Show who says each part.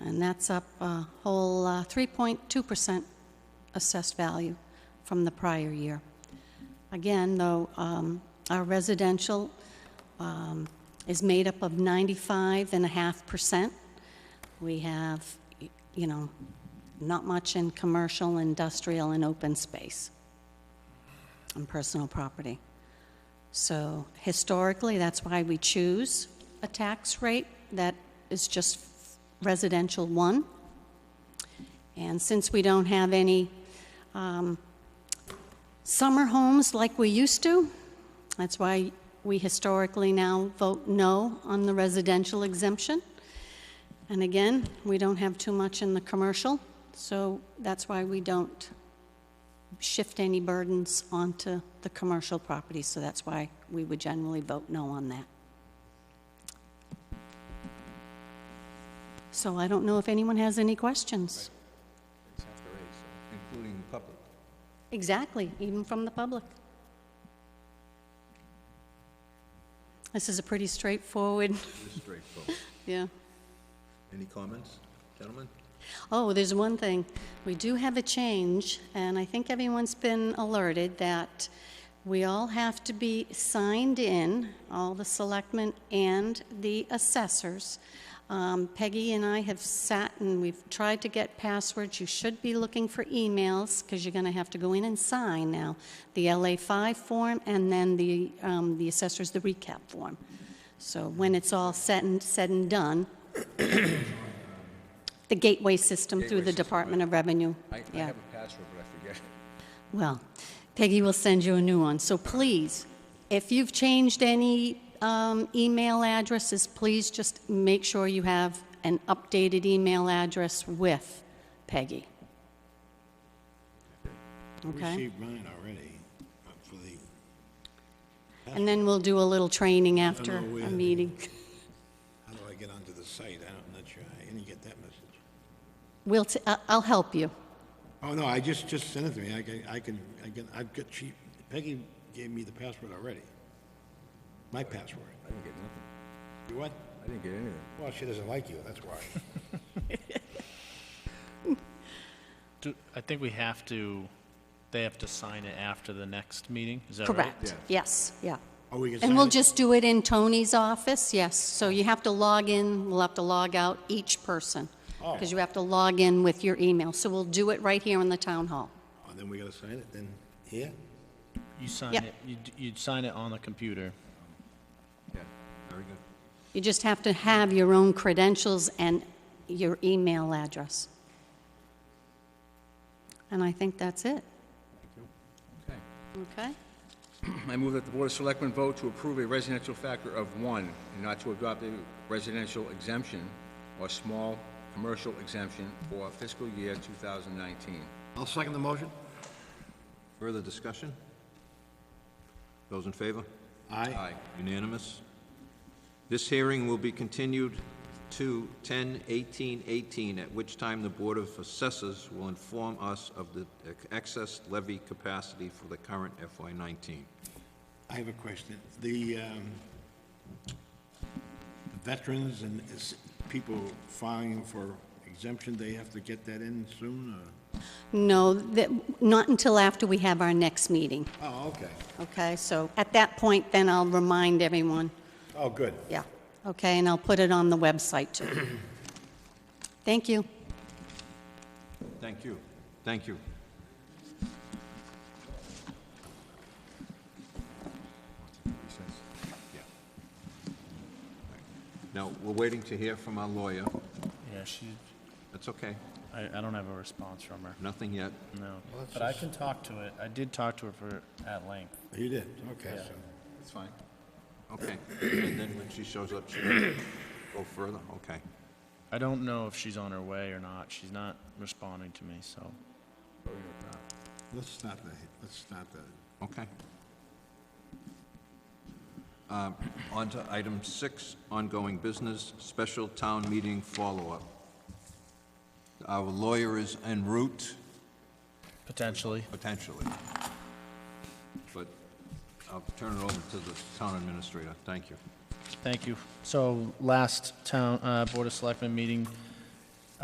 Speaker 1: and that's up a whole uh, 3.2% assessed value from the prior year. Again, though, um, our residential um, is made up of 95.5%. We have, y- you know, not much in commercial, industrial, and open space and personal property. So historically, that's why we choose a tax rate that is just residential one. And since we don't have any um, summer homes like we used to, that's why we historically now vote no on the residential exemption. And again, we don't have too much in the commercial, so that's why we don't shift any burdens onto the commercial property, so that's why we would generally vote no on that. So I don't know if anyone has any questions.
Speaker 2: including the public.
Speaker 1: Exactly, even from the public. This is a pretty straightforward,
Speaker 2: This is straightforward.
Speaker 1: yeah.
Speaker 2: Any comments, gentlemen?
Speaker 1: Oh, there's one thing. We do have a change, and I think everyone's been alerted that we all have to be signed in, all the selectmen and the assessors. Um, Peggy and I have sat and we've tried to get passwords. You should be looking for emails because you're going to have to go in and sign now the LA5 form and then the, um, the assessors, the recap form. So when it's all said and, said and done, the gateway system through the
Speaker 2: Gateway system,
Speaker 1: Department of Revenue.
Speaker 2: I, I
Speaker 1: Yeah.
Speaker 2: have a password, but I forget. it.
Speaker 1: Well, Peggy will send you a new one. So please, if you've changed any um, email addresses, please just make sure you have an updated email address with Peggy. Okay?
Speaker 3: Received mine already uh, for the,
Speaker 1: And then we'll do a little training after
Speaker 3: know where
Speaker 1: a
Speaker 3: the-
Speaker 1: meeting.
Speaker 3: how do I get onto the site? I don't- I'm not sure. I didn't get that message.
Speaker 1: We'll, t- I- I'll help you.
Speaker 3: Oh, no, I just, just sent it to me. I can, I can, I can, I've got, she, Peggy gave me the password already. My password.
Speaker 2: I didn't get nothing.
Speaker 3: You what?
Speaker 2: I didn't get anything.
Speaker 3: Well, she doesn't like you, that's why.
Speaker 4: Do, I think we have to, they have to sign it after the next meeting, is that right?
Speaker 1: Correct. Yes, yeah.
Speaker 3: Oh, we can
Speaker 1: And we'll
Speaker 3: sign it?
Speaker 1: just do it in Tony's office, yes. So you have to log in, we'll have to log out each person,
Speaker 3: Oh.
Speaker 1: because you have to log in with your email. So we'll do it right here in the town hall.
Speaker 3: Oh, Then we gotta sign it, then, here?
Speaker 4: You sign
Speaker 1: Yep.
Speaker 4: it, you'd, you'd sign it on the computer.
Speaker 2: Yeah, very good.
Speaker 1: You just have to have your own credentials and your email address. And I think that's it,
Speaker 2: Okay.
Speaker 1: okay?
Speaker 2: I move that the Board of Selectmen vote to approve a residential factor of one and not to adopt a residential exemption or small commercial exemption for fiscal year 2019.
Speaker 3: I'll second the motion.
Speaker 2: Further discussion? Those in favor?
Speaker 3: Aye.
Speaker 2: Unanimous?
Speaker 5: This hearing will be continued to 10/18/18, at which time the Board of Assessors will inform us of the excess levy capacity for the current FY19.
Speaker 3: I have a question. The um, veterans and is- people filing for exemption, they have to get that in soon, or?
Speaker 1: No, that, not until after we have our next meeting,
Speaker 3: Oh, okay.
Speaker 1: okay? So at that point, then I'll remind everyone.
Speaker 3: Oh, good.
Speaker 1: Yeah, okay, and I'll put it on the website, too. Thank you.
Speaker 5: Thank you. Thank you. Now, we're waiting to hear from our lawyer.
Speaker 4: Yeah, she,
Speaker 5: That's okay.
Speaker 4: I, I don't have a response from her,
Speaker 5: Nothing yet.
Speaker 4: no. But I can talk to it, I did talk to her for, at length.
Speaker 3: You did, okay, so,
Speaker 2: That's fine.
Speaker 5: Okay. And then when she shows up, she'll go further? Okay.
Speaker 4: I don't know if she's on her way or not, she's not responding to me, so.
Speaker 3: let's start the, let's start the,
Speaker 5: Okay. Um, On to item six, ongoing business, special town meeting follow-up. Our lawyer is en route,
Speaker 4: Potentially.
Speaker 5: potentially. But I'll turn it over to the town administrator. Thank you.
Speaker 4: Thank you. So last town, uh, Board of Selectmen meeting,